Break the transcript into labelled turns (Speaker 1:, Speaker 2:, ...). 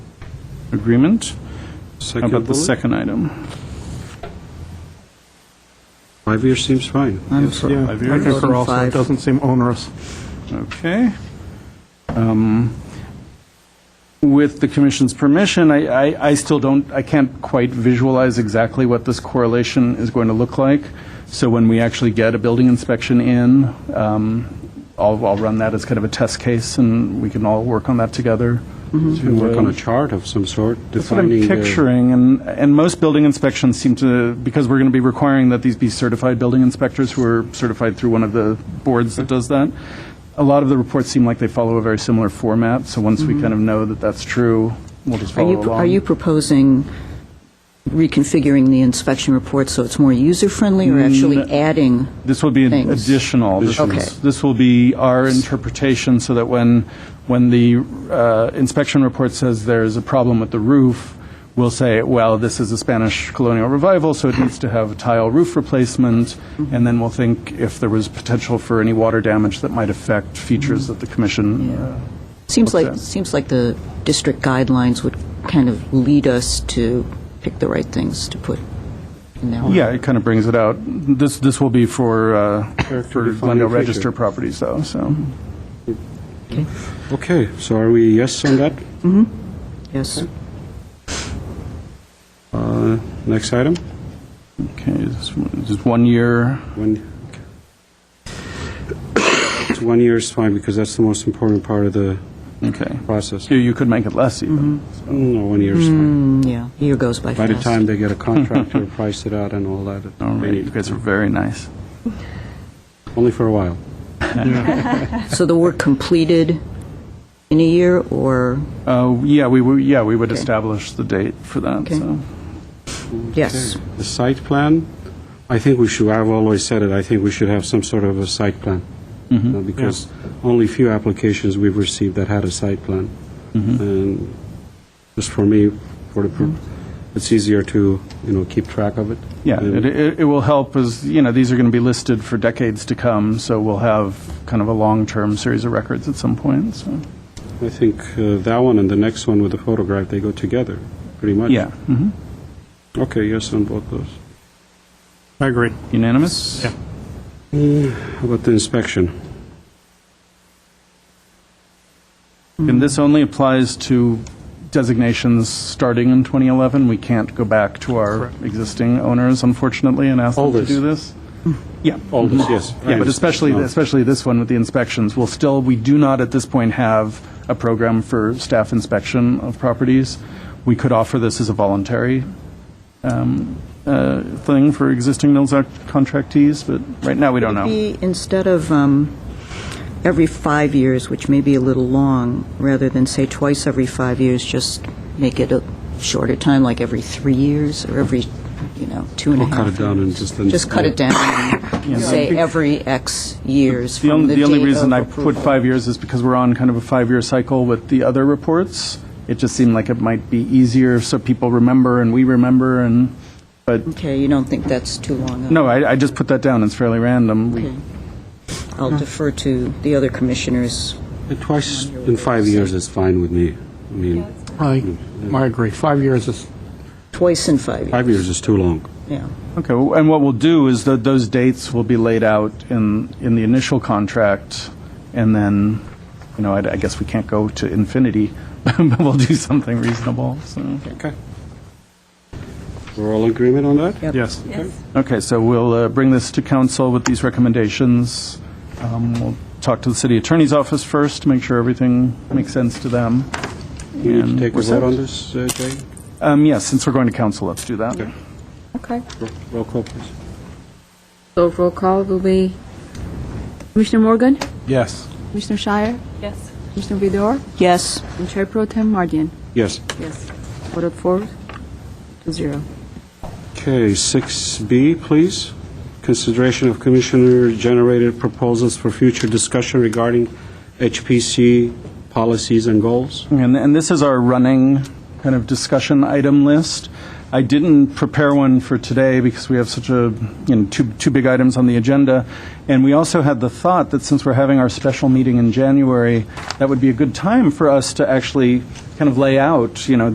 Speaker 1: agreement. How
Speaker 2: Second
Speaker 1: about the
Speaker 2: bullet?
Speaker 1: second item?
Speaker 2: Five years seems fine.
Speaker 1: I'm sorry.
Speaker 3: Yeah, I
Speaker 1: Five years?
Speaker 3: concur also. It
Speaker 4: Five.
Speaker 3: doesn't seem onerous.
Speaker 1: Okay. Um, With the commission's permission, I, I- I still don't, I can't quite visualize exactly what this correlation is going to look like. So when we actually get a building inspection in, um, I'll, I'll run that as kind of a test case, and we can all work on that together.
Speaker 2: We Mm-hmm. work on
Speaker 1: uh,
Speaker 2: a chart of some sort
Speaker 1: That's what I'm
Speaker 2: defining the...
Speaker 1: picturing, and, and most building inspections seem to, because we're going to be requiring that these be certified building inspectors who are certified through one of the boards that does that. A lot of the reports seem like they follow a very similar format, so once we kind of know that that's true, we'll just
Speaker 4: Mm-hmm. Are
Speaker 1: follow
Speaker 4: you,
Speaker 1: along.
Speaker 4: are you proposing reconfiguring the inspection report so it's more user-friendly or actually adding?
Speaker 1: This will be an
Speaker 4: Things.
Speaker 1: additional. This
Speaker 4: Okay.
Speaker 1: is- This will be our interpretation so that when, when the uh, inspection report says there's a problem with the roof, we'll say, well, this is a Spanish colonial revival, so it needs to have tile roof replacement. And then we'll think if there was potential for any water damage that might affect features that the commission. uh,
Speaker 4: Seems like,
Speaker 1: Okay.
Speaker 4: seems like the district guidelines would kind of lead us to pick the right things to put in there.
Speaker 1: uh, Yeah, it kind of brings it out. This, this will be for, uh, for
Speaker 2: Character-defining
Speaker 1: Glendale
Speaker 2: feature.
Speaker 1: Register properties though, so.
Speaker 2: Okay, so are we yes on that?
Speaker 4: Yes.
Speaker 2: Uh, Next item?
Speaker 1: Okay, this one- just one year.
Speaker 2: One, okay. It's one year is fine, because that's the most important part of the
Speaker 1: Okay.
Speaker 2: process.
Speaker 1: You, you could make it less even.
Speaker 4: Mm-hmm.
Speaker 2: No, one year is
Speaker 1: Hmm.
Speaker 2: fine.
Speaker 4: Mm, Yeah, year goes by
Speaker 2: By
Speaker 4: fast.
Speaker 2: the time they get a contractor, price it out and all that. it-
Speaker 1: All
Speaker 2: they
Speaker 1: right,
Speaker 2: need
Speaker 1: you
Speaker 2: it.
Speaker 1: guys are very nice.
Speaker 2: Only for a while.
Speaker 4: So the work completed in a year or,
Speaker 1: Uh, yeah, we would, yeah, we would
Speaker 4: Okay.
Speaker 1: establish the date for that,
Speaker 4: Okay.
Speaker 1: so.
Speaker 4: yes.
Speaker 2: Okay. The site plan, I think we should, I've always said it, I think we should have some sort of a site plan.
Speaker 1: Mm-hmm.
Speaker 2: Uh, Because only few applications we've received that had a site plan.
Speaker 1: Mm-hmm.
Speaker 2: And just for me, for the, pro- it's easier to, you know, keep track of it.
Speaker 1: Mm-hmm. Yeah, it,
Speaker 2: And-
Speaker 1: it it will help as, you know, these are going to be listed for decades to come, so we'll have kind of a long-term series of records at some point, so.
Speaker 2: I think uh, that one and the next one with the photograph, they go together, pretty much.
Speaker 1: Yeah, mhm.
Speaker 2: Okay, yes on both those.
Speaker 3: I agree.
Speaker 1: unanimous?
Speaker 3: Yeah.
Speaker 2: How about the inspection?
Speaker 4: Mm-hmm.
Speaker 1: And this only applies to designations starting in 2011. We can't go back to our existing owners, unfortunately, and ask them
Speaker 2: All
Speaker 1: to
Speaker 2: this.
Speaker 1: do this.
Speaker 4: Hmm.
Speaker 1: Yeah.
Speaker 2: All this, Mm-hmm. yes.
Speaker 1: Yeah, but especially,
Speaker 2: No.
Speaker 1: especially this one with the inspections, we'll still, we do not at this point have a program for staff inspection of properties. We could offer this as a voluntary um, uh, thing for existing Mills Act contractees, but right now, we don't know.
Speaker 4: Be instead of um, every five years, which may be a little long, rather than say twice every five years, just make it a shorter time, like every three years or every, you know, two and a
Speaker 2: We'll
Speaker 4: half.
Speaker 2: cut it down and
Speaker 4: years.
Speaker 2: just...
Speaker 4: Just cut it down, and say every X years
Speaker 1: The
Speaker 4: from
Speaker 1: only,
Speaker 4: the
Speaker 1: the only
Speaker 4: date
Speaker 1: reason
Speaker 4: of
Speaker 1: I put
Speaker 4: approval.
Speaker 1: five years is because we're on kind of a five-year cycle with the other reports. It just seemed like it might be easier, so people remember and we remember, and, but,
Speaker 4: Okay, you don't think that's too long?
Speaker 1: no, I, I just put that down, it's fairly random. We-
Speaker 4: Okay. I'll defer to the other commissioners.
Speaker 2: Twice in five years is fine with me. I mean,
Speaker 3: I, I agree. Five years is,
Speaker 4: Twice in five years.
Speaker 2: five years is too long.
Speaker 4: Yeah.
Speaker 1: Okay, well, and what we'll do is that those dates will be laid out in, in the initial contract, and then, you know, I I guess we can't go to infinity, but we'll do something reasonable, so.
Speaker 2: Okay. We're all in agreement on that?
Speaker 4: Yep.
Speaker 1: Yes.
Speaker 5: Yes.
Speaker 1: Okay, so we'll uh, bring this to council with these recommendations. Um, We'll talk to the city attorney's office first, to make sure everything makes sense to them.
Speaker 2: We need
Speaker 1: And
Speaker 2: to take a
Speaker 1: we're set.
Speaker 2: vote on this, uh, Jay?
Speaker 1: Um, yes, since we're going to council, let's do that.
Speaker 5: Okay.
Speaker 2: Ro- Roll call, please.
Speaker 5: So roll call will be Commissioner Morgan,
Speaker 1: Yes.
Speaker 5: Commissioner Shire,
Speaker 6: Yes.
Speaker 5: Commissioner Vidor,
Speaker 4: Yes.
Speaker 5: and Chair Pro Tem Mardian.
Speaker 2: Yes.
Speaker 5: Yes. Voted four to zero.
Speaker 2: Okay, 6B, please. Consideration of commissioner-generated proposals for future discussion regarding HPC policies and goals.
Speaker 1: And, and this is our running kind of discussion item list. I didn't prepare one for today because we have such a, you know, two, two big items on the agenda. And we also had the thought that since we're having our special meeting in January, that would be a good time for us to actually kind of lay out, you know,